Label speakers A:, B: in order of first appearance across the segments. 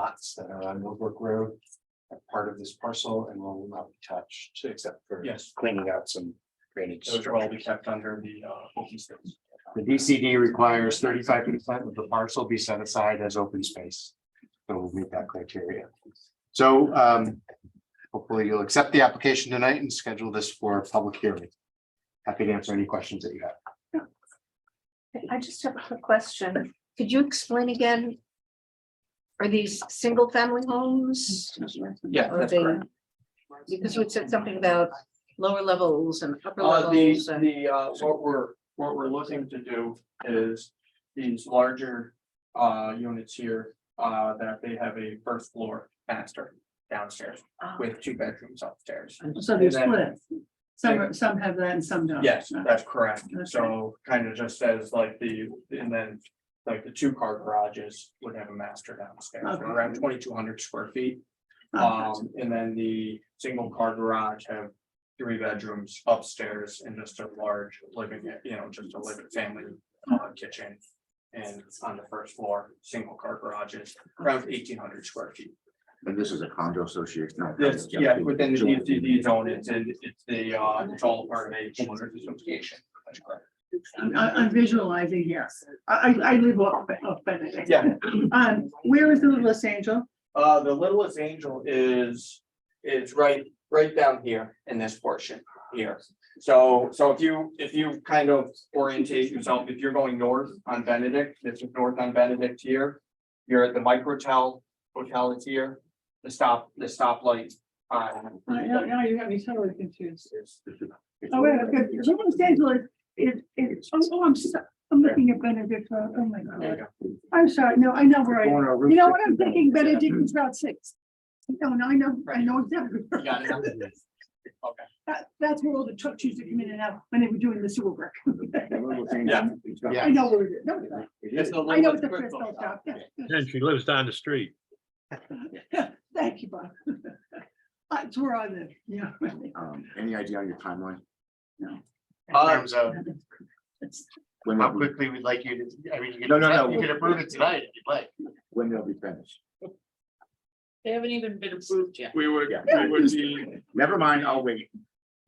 A: lots that are on Millbrook Road. Are part of this parcel and will not be touched except for.
B: Yes.
A: Cleaning out some drainage.
B: Those are all be kept under the uh open space.
A: The DCD requires thirty-five percent of the parcel be set aside as open space. So we'll meet that criteria. So um, hopefully you'll accept the application tonight and schedule this for a public hearing. Happy to answer any questions that you have.
C: I just have a quick question. Could you explain again? Are these single family homes?
B: Yeah,
C: Are
B: that's
C: they-
B: correct.
C: Because we said something about lower levels and upper
B: Uh, the,
C: levels and
B: the, uh, what we're, what we're looking to do is these larger, uh, units here, uh, that they have a first floor master downstairs
C: Ah,
B: with two bedrooms upstairs.
D: So they're
B: And then-
D: split. Some, are- some have that and some don't.
B: Yes,
D: Uh,
B: that's correct.
D: Okay.
B: So kind of just says like the, and then like the two car garages would have a master downstairs,
D: Okay.
B: around twenty-two hundred square feet.
D: uh,
B: Um, and then the single car garage have three bedrooms upstairs and just a large living, you know, just a living family uh, kitchen. And on the first floor, single car garages, around eighteen hundred square feet.
E: And this is a condo association. not condo,
B: This, yeah, within the
E: joint.
B: DCD zone, it's, in- it's the, uh, it's all part of a homeowners association. That's correct.
D: I'm, I'm I'm visualizing here. I, I, I live off, off Benedict.
B: Yeah.
D: Um, where is the Los Angeles?
B: Uh, the littlest angel is, is right, right down here in this portion here. So, so if you, if you kind of orientate yourself, if you're going north on Benedict, this is north on Benedict here. You're at the microtel, hotel is here, the stop, the stoplight. on-
D: I know, now Uh, you have me totally confused.
B: is-
D: Oh, wait, okay, so Los Angeles, it, it, oh, oh, I'm, so- I'm looking at Benedict, Road. oh my
B: there you
D: God.
B: go.
D: I'm sorry, no, I know where I,
E: Going on Route
D: you know what I'm
E: 60.
D: thinking, Benedict is Route Six. No, no, I know, I know exactly.
B: You got it. Okay.
D: That, that's where all the trucks used to come in and out when they were doing the sewer work.
B: Yeah.
D: I know where it is. No, no,
B: It's the
D: I know
B: Littlest
D: it's a
B: Crystal
D: crystal shop.
B: Shop.
D: yeah,
F: And she lives down the street.
D: yeah. Thank you, Bob. That's where I live, yeah. really.
E: Um, Any idea on your timeline?
A: In terms of
E: When
A: how
E: they'll be,
A: quickly we'd like you to, I mean, you
E: No, no, no.
A: can, you can approve it tonight if you'd like.
E: when they'll be finished?
G: They haven't even been approved yet.
H: We would,
E: Yeah.
H: we would be,
E: Never mind, I'll wait.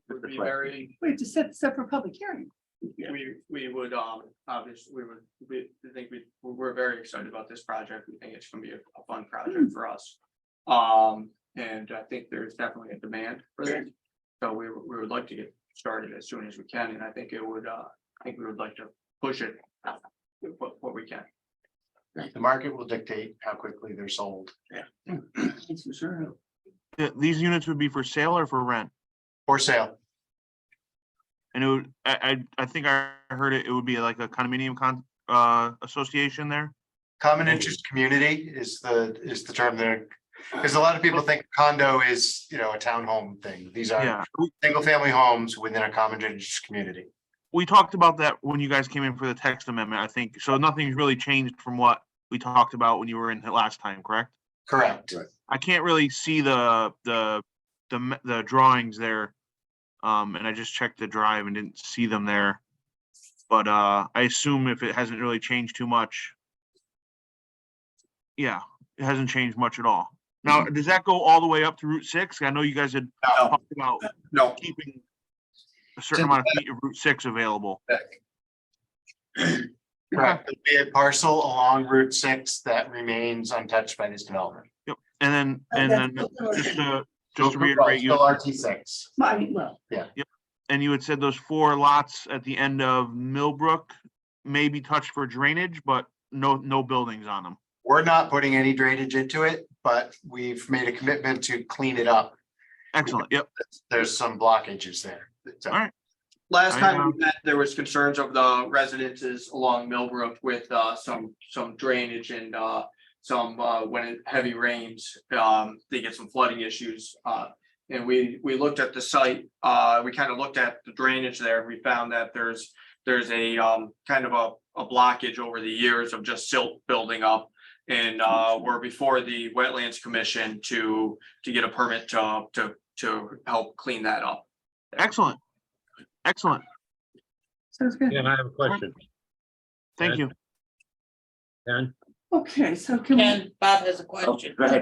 B: Would be very
D: Wait, to set, set for public hearing.
E: Yeah.
B: We, we would, um, obviously, we would, we I think we, we're very excited about this project. We think it's gonna be a a fun project for us. Um, and I think there's definitely a demand for this. So we, we would like to get started as soon as we can, and I think it would, uh, I think we would like to push it. What, what we can.
A: The market will dictate how quickly they're sold.
D: That's for sure.
I: Th- These units would be for sale or for rent?
A: For sale.
I: And it would, I, I, I think I heard it, it would be like a condominium con, uh, association there?
A: Common interest community is the, is the term there. Because a lot of people think condo is, you know, a townhome thing. These are
I: Yeah, We-
A: single family homes within a common interest community.
I: we talked about that when you guys came in for the text amendment, I think. So nothing's really changed from what we talked about when you were in the last time, correct?
A: Correct.
I: I can't really see the, the, the, m- the drawings there. Um, and I just checked the drive and didn't see them there. But, uh, I assume if it hasn't really changed too much. Yeah, it hasn't changed much at all. Now, does that go all the way up to Route six? I know you guys had
A: No.
I: talked about
A: No.
I: keeping a certain amount of feet of Route six available.
A: Correct. There'll Be a parcel along Route six that remains untouched by this development.
I: And then, and then just to, just to reiterate, you.
A: Still RT six.
D: I mean, well,
I: and you had said those four lots at the end of Millbrook may be touched for drainage, but no, no buildings on them.
A: We're not putting any drainage into it, but we've made a commitment to clean it up.
I: Excellent, yep.
A: There's some blockages there. So-
I: All right.
B: Last
I: I
B: time
I: know.
B: we met, there was concerns of the residences along Millbrook with uh some some drainage and uh. Some uh when it heavy rains, um they get some flooding issues uh. And we we looked at the site, uh we kind of looked at the drainage there. We found that there's there's a um kind of a a blockage over the years of just silt building up. And uh we're before the Wetlands Commission to to get a permit to to to help clean that up.
I: Excellent. Excellent,
D: sounds good.
F: And I have a question.
I: thank you.
F: Ken?
D: Okay, so can we?
G: Ken, Bob has a question.
B: Oh,
E: Go ahead.